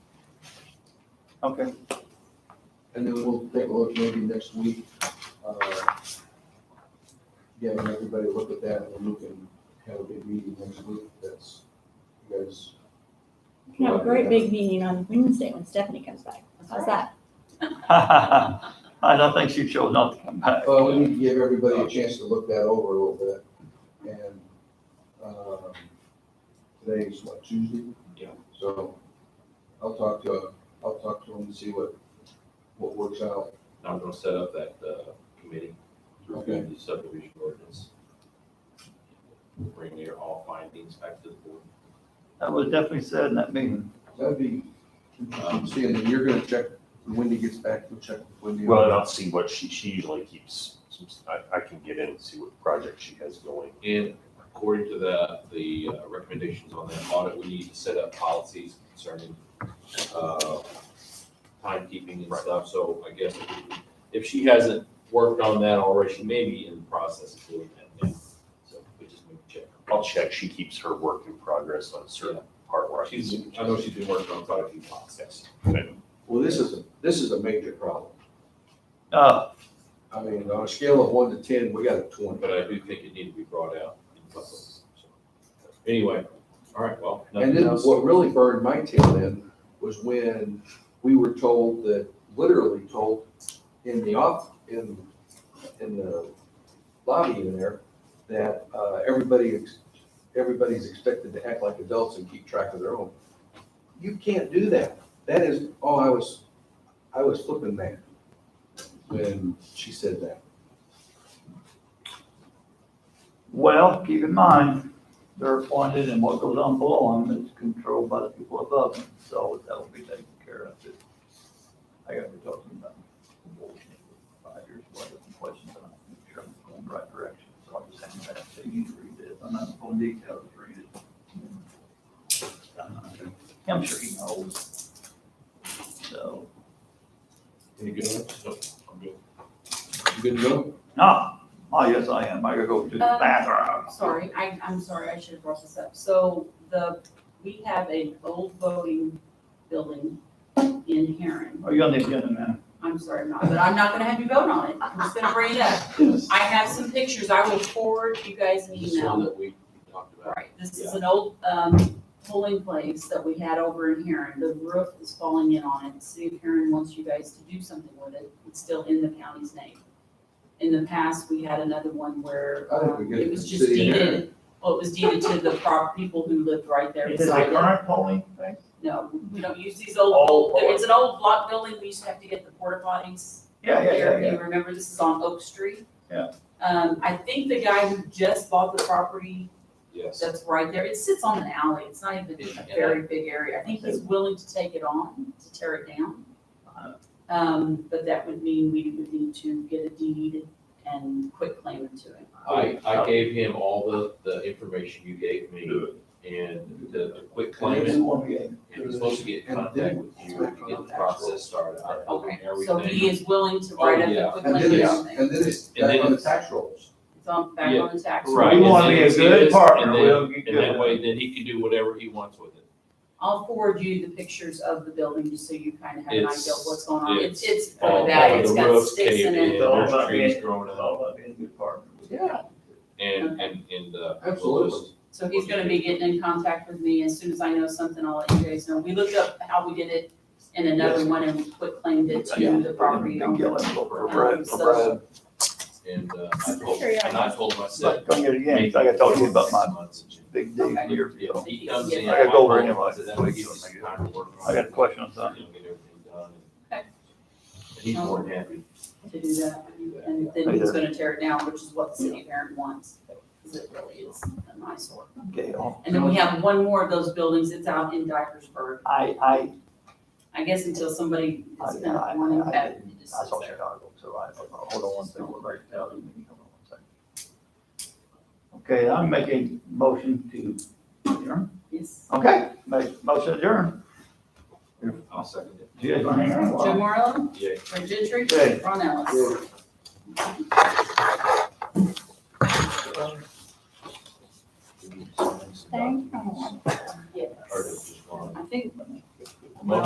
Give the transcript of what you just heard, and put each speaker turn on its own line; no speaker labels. Okay,
And then we'll take a look maybe next week. uh, Getting everybody to look at that and we can have a big meeting next week. That's, you guys.
We can have a great big meeting on Wednesday when Stephanie comes back. How's that?
I don't think she chose not to come back.
Well, we need to give everybody a chance to look that over a little bit. And um, today's what, Tuesday?
Yeah.
So I'll talk to, I'll talk to them and see what, what works out.
I'm gonna set up that, uh, committee to
Okay.
review the subdivision ordinance. Bring your all findings back to the board.
That was definitely said in that meeting.
That'd be,
Um,
seeing that you're gonna check, when he gets back, we'll check with Wendy.
Well, and I'll see what she, she usually keeps, some- I, I can get in and see what project she has going.
And according to the, the uh, recommendations on that audit, we need to set up policies concerning, uh, timekeeping and
Right.
stuff, so I guess if we- if she hasn't worked on that already, she may be in the process of doing that now. So we just need to check.
I'll check, she keeps her work in progress on a certain part where I can
She's,
see.
I know she's been working on quite a few policies.
Well, this is, a this is a major problem.
Uh,
I mean, on a scale of one to ten, we got a twenty.
but I do think it needed to be brought out. in public, so. Anyway, all right, well.
And
nothing
then
else.
what really burned my tail end was when we were told that, literally told in the off, in, in the lobby in there, that, uh, everybody, ex- everybody's expected to act like adults and keep track of their own. You can't do that. That is, oh, I was, I was flipping mad when she said that.
well, keep in mind, they're appointed and what goes on below them is controlled by the people above them, so that will be taken care of too. I gotta be talking about five years, what are the questions, and I'm sure I'm going the right direction, so I'll just hand that to you to read this, I'm not going to detail to read it. I'm sure he knows. So,
Any good? No, I'm good.
You good to go?
no, oh, yes, I am, I gotta go to the
Uh,
bathroom.
Sorry, I, I'm sorry, I should have brought this up. So the, we have an old voting building in Heron.
Are you Oh, on the agenda now?
I'm sorry, I'm not, but I'm not gonna have you vote on it. I'm just gonna bring it up. I have some pictures. I will forward you guys an
This one
email.
that we talked about.
Right, this is an old, um, polling place that we had over in Heron. The roof is falling in on it. City of Heron wants you guys to do something with it. It's still in the county's name. In the past, we had another one where,
I think we
um,
get
it was
the
just
city of Heron.
deeded Well, it was deeded to the prop, people who lived right there
Is it
beside
the
it.
current polling thing?
No, we don't use these
Oh,
old,
oh.
it's an old block building, we used to have to get the porta potties.
Yeah, yeah, yeah,
there.
yeah.
You remember, this is on Oak Street.
Yeah.
Um, I think the guy who just bought the property
Yes.
that's right there, it sits on an alley, it's not even
Yeah.
a very big area, I think he's willing to take it on, to tear it down.
Uh-huh.
Um, but that would mean we would need to get a deed and quit claiming to it.
I, I gave him all the, the information you gave me and the, the quick claim.
Maybe
And
one game.
he's supposed to get in contact with you to get the process started. I told him
Okay, so he
everything.
is willing to
Oh,
write up
yeah.
a quick
And
claim
then
or
it's,
something.
and then it's
And then
back on the
it's-
tax rolls.
It's on, back
Yeah.
on the tax.
Right.
We want to
and
be
then
a
see
good
this,
partner.
and then-
We'll get
And that
good.
way, then he can do whatever he wants with it.
I'll forward you the pictures of the building, just so you kind of have an idea of
It's-
what's going on. It's, it's
All
really bad,
the
it's got
roofs
sticks in
caved
it.
in,
It's all
there's
about
trees
being-
growing
It's
up.
all about being a good partner.
Yeah.
And, and, and, uh. we'll
Absolutely.
just-
So he's gonna be getting in contact with me, as soon as I know something, I'll let you guys know. We looked up how we did it in another one and we quit claimed it
Yeah.
to the property
Big
owner.
yellow for Brad, for Brad.
And, uh, I told, and I told myself.
But don't get it again, it's like I told you about my
Six months.
big deal a year ago.
He comes in.
I
gotta go over
my
anyway.
phone, that way he doesn't have time to work on
I got a
it.
question on something.
You know, get everything done.
Okay.
And He's more than happy
To do that,
to do that.
and then he's gonna tear it down, which is what the city of Erin wants, because it really is a nice one.
Gail,
And then we have one more of those buildings, it's out in Dyersburg.
I, I,
I guess until somebody
I,
has been
I,
wanting
I
that,
didn't,
it just
I
sits
saw
there.
Chicago, so I, hold on one second, we're right now, you can hold on one second. Okay, I'm making motion to adjourn.
Yes.
Okay, make motion adjourn.
I'll second it.
Do you guys wanna hang around a
Joe
while?
Morrow,
Yeah.
Fred Gentry,
Yeah.
Ron
Yeah.
Ellis.
Or
Thank you.
it's just gone.
Yes. I think